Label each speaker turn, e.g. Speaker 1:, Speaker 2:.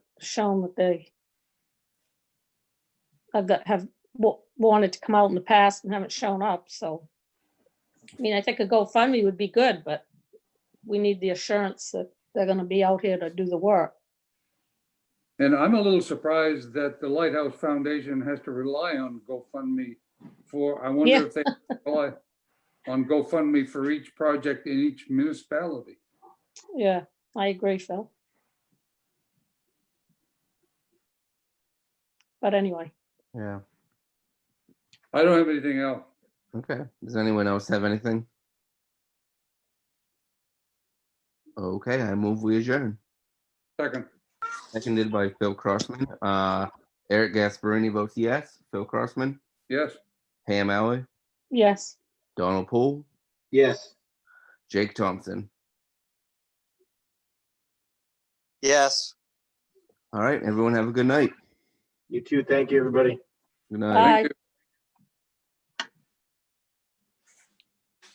Speaker 1: shown that they have got, have wa- wanted to come out in the past and haven't shown up, so. I mean, I think a GoFundMe would be good, but we need the assurance that they're gonna be out here to do the work.
Speaker 2: And I'm a little surprised that the Lighthouse Foundation has to rely on GoFundMe for, I
Speaker 1: Yeah.
Speaker 2: wonder if they rely on GoFundMe for each project in each municipality.
Speaker 1: Yeah, I agree, Phil. But anyway,
Speaker 3: Yeah,
Speaker 2: I don't have anything else.
Speaker 3: okay. Does anyone else have anything? Okay, I move we adjourn.
Speaker 2: Second,
Speaker 3: Seconded by Phil Crossman. Uh, Eric Gasparini votes yes. Phil Crossman,
Speaker 2: yes.
Speaker 3: Pam Alley,
Speaker 1: yes,
Speaker 3: Donald Poole,
Speaker 4: Yes.
Speaker 3: Jake Thompson.
Speaker 5: Yes.
Speaker 3: All right, everyone have a good night.
Speaker 4: You too. Thank you, everybody.
Speaker 3: Good night.
Speaker 1: Bye.
Speaker 2: Thank you.